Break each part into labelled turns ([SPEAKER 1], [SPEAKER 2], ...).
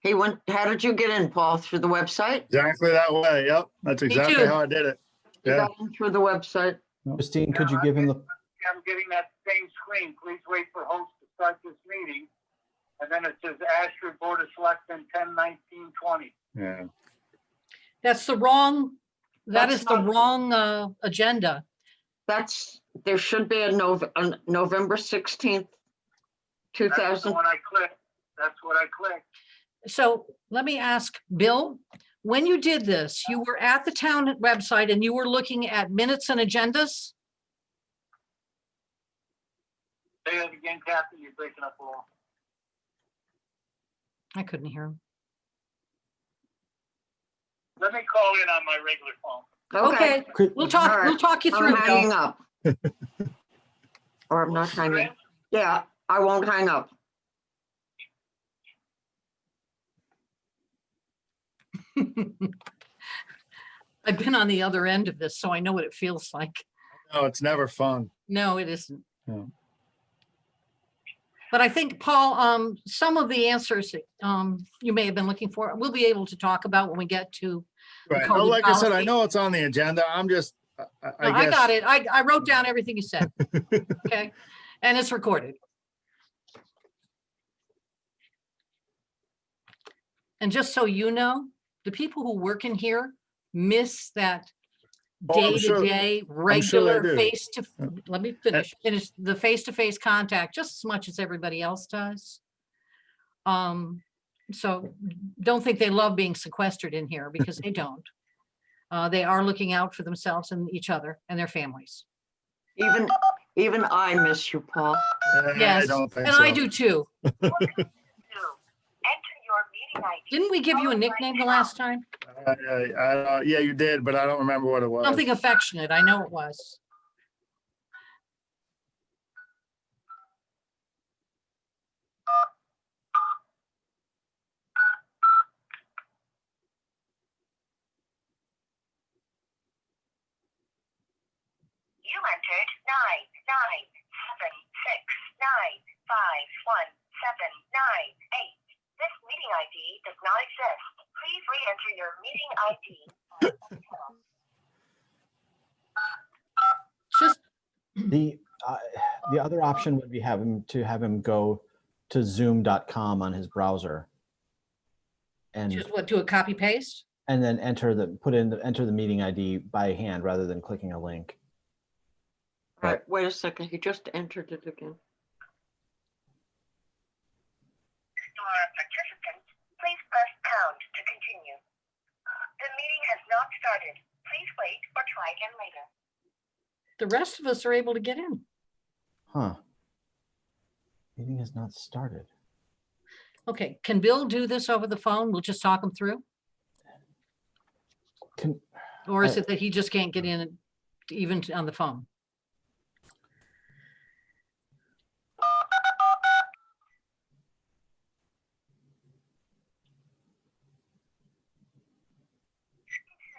[SPEAKER 1] He went, how did you get in, Paul? Through the website?
[SPEAKER 2] Exactly that way. Yep. That's
[SPEAKER 3] Me
[SPEAKER 2] exactly
[SPEAKER 3] too.
[SPEAKER 2] how I did it.
[SPEAKER 1] You
[SPEAKER 2] Yeah.
[SPEAKER 1] got in Through the website?
[SPEAKER 4] Christine, could you give him the,
[SPEAKER 5] I'm getting that same screen. Please wait for host to start this meeting. And then it says Ashford Board of Selectmen, ten nineteen twenty.
[SPEAKER 2] Yeah.
[SPEAKER 3] That's the wrong, that
[SPEAKER 1] That's
[SPEAKER 3] is the
[SPEAKER 1] not-
[SPEAKER 3] wrong uh, agenda.
[SPEAKER 1] That's, there should be a Nov, a November 16th,
[SPEAKER 5] That's the
[SPEAKER 1] 2000.
[SPEAKER 5] one I clicked. That's what I clicked.
[SPEAKER 3] So let me ask, Bill, when you did this, you were at the town website and you were looking at minutes and agendas?
[SPEAKER 5] Say it again, Kathy, you're breaking up a little.
[SPEAKER 3] I couldn't hear him.
[SPEAKER 5] Let me call in on my regular phone.
[SPEAKER 1] Okay,
[SPEAKER 3] Okay,
[SPEAKER 4] Chri-
[SPEAKER 3] we'll talk, we'll
[SPEAKER 1] Alright,
[SPEAKER 3] talk you
[SPEAKER 1] I'm
[SPEAKER 3] through.
[SPEAKER 1] hanging
[SPEAKER 3] Bill.
[SPEAKER 1] up. Or I'm not hanging.
[SPEAKER 5] Chris,
[SPEAKER 1] Yeah, I won't hang up.
[SPEAKER 3] I've been on the other end of this, so I know what it feels like.
[SPEAKER 2] No, it's never fun.
[SPEAKER 3] No, it isn't.
[SPEAKER 2] No.
[SPEAKER 3] But I think, Paul, um, some of the answers that, um, you may have been looking for, we'll be able to talk about when we get to.
[SPEAKER 2] Right.
[SPEAKER 3] call
[SPEAKER 2] No,
[SPEAKER 3] it
[SPEAKER 2] like I said, I
[SPEAKER 3] policy.
[SPEAKER 2] know it's on the agenda. I'm just, I-
[SPEAKER 3] No,
[SPEAKER 2] I
[SPEAKER 3] I got
[SPEAKER 2] guess,
[SPEAKER 3] it. I, I wrote down everything you said. Okay, and it's recorded. And just so you know, the people who work in here miss that
[SPEAKER 2] Oh, I'm sure-
[SPEAKER 3] day-to-day,
[SPEAKER 2] sure they
[SPEAKER 3] regular
[SPEAKER 2] do.
[SPEAKER 3] face to, let me finish, finish the face-to-face contact just as much as everybody else does. Um, so don't think they love being sequestered in here because they don't. Uh, they are looking out for themselves and each other and their families.
[SPEAKER 1] Even, even I miss you, Paul.
[SPEAKER 2] Yeah, I
[SPEAKER 3] Yes,
[SPEAKER 2] don't
[SPEAKER 3] and
[SPEAKER 2] think
[SPEAKER 3] I
[SPEAKER 2] so.
[SPEAKER 3] do too.
[SPEAKER 6] Enter your meeting ID.
[SPEAKER 3] Didn't we give you a nickname the last time?
[SPEAKER 2] I- I- I don't- Yeah, you did, but I don't remember what it was.
[SPEAKER 3] Something affectionate, I know it was.
[SPEAKER 6] You entered nine, nine, seven, six, nine, five, one, seven, nine, eight. This meeting ID does not exist. Please re-enter your meeting ID.
[SPEAKER 3] Just,
[SPEAKER 4] the, uh, the other option would be have him, to have him go to zoom.com on his browser. And,
[SPEAKER 3] just what, do a copy paste?
[SPEAKER 4] and then enter the, put in, the enter the meeting ID by hand rather than clicking a link.
[SPEAKER 1] All right, wait a second. He just entered it again.
[SPEAKER 6] You are a participant. Please press pound to continue. The meeting has not started. Please wait or try again later.
[SPEAKER 3] The rest of us are able to get in.
[SPEAKER 4] Huh. Meeting has not started.
[SPEAKER 3] Okay, can Bill do this over the phone? We'll just talk him through?
[SPEAKER 4] Can,
[SPEAKER 3] Or is
[SPEAKER 4] I-
[SPEAKER 3] it that he just can't get in to- even to- on the phone?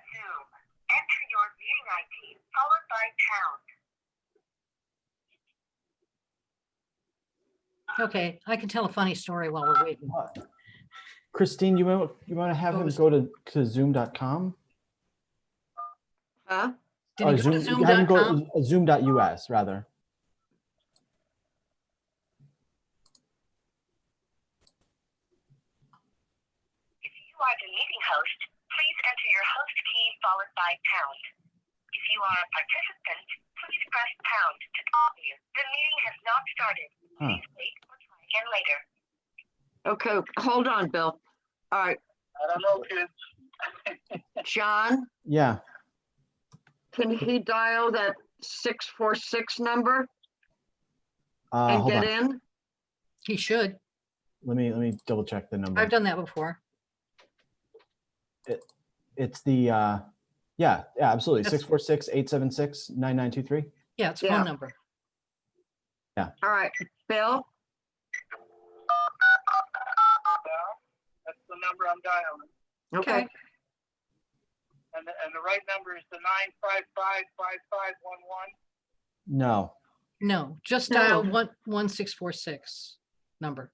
[SPEAKER 6] Zoom. Enter your meeting ID followed by pound.
[SPEAKER 3] Okay, I can tell a funny story while we're waiting.
[SPEAKER 4] What? Christine, you want, you want to have
[SPEAKER 3] Go
[SPEAKER 4] him
[SPEAKER 3] to
[SPEAKER 4] go to, to zoom.com?
[SPEAKER 1] Huh?
[SPEAKER 3] Did
[SPEAKER 4] Or
[SPEAKER 3] he go to
[SPEAKER 4] Zoom- have him go
[SPEAKER 3] zoom.com?
[SPEAKER 4] to Zoom.us rather.
[SPEAKER 6] If you are the meeting host, please enter your host key followed by pound. If you are a participant, please press pound to continue. The meeting has not started.
[SPEAKER 4] Huh.
[SPEAKER 6] Please wait or try again later.
[SPEAKER 1] Okay, hold on, Bill. All right,
[SPEAKER 5] I don't know, kids.
[SPEAKER 1] John,
[SPEAKER 4] Yeah.
[SPEAKER 1] can he dial that 646 number
[SPEAKER 4] Uh,
[SPEAKER 1] and
[SPEAKER 4] hold
[SPEAKER 1] get
[SPEAKER 4] on.
[SPEAKER 1] in?
[SPEAKER 3] He should.
[SPEAKER 4] Let me, let me double check the number.
[SPEAKER 3] I've done that before.
[SPEAKER 4] It's the, uh, yeah, yeah, absolutely.
[SPEAKER 3] That's-
[SPEAKER 4] Six four six eight seven six nine nine two three.
[SPEAKER 3] Yeah, it's
[SPEAKER 1] Yeah.
[SPEAKER 3] phone number.
[SPEAKER 1] All right, Bill,
[SPEAKER 5] Well, That's the number I'm dialing.
[SPEAKER 1] okay,
[SPEAKER 3] Okay.
[SPEAKER 5] And, the- and the right number is the nine five five five five one one.
[SPEAKER 4] No,
[SPEAKER 3] No, just
[SPEAKER 1] No.
[SPEAKER 3] dial one, one, six, four, six number.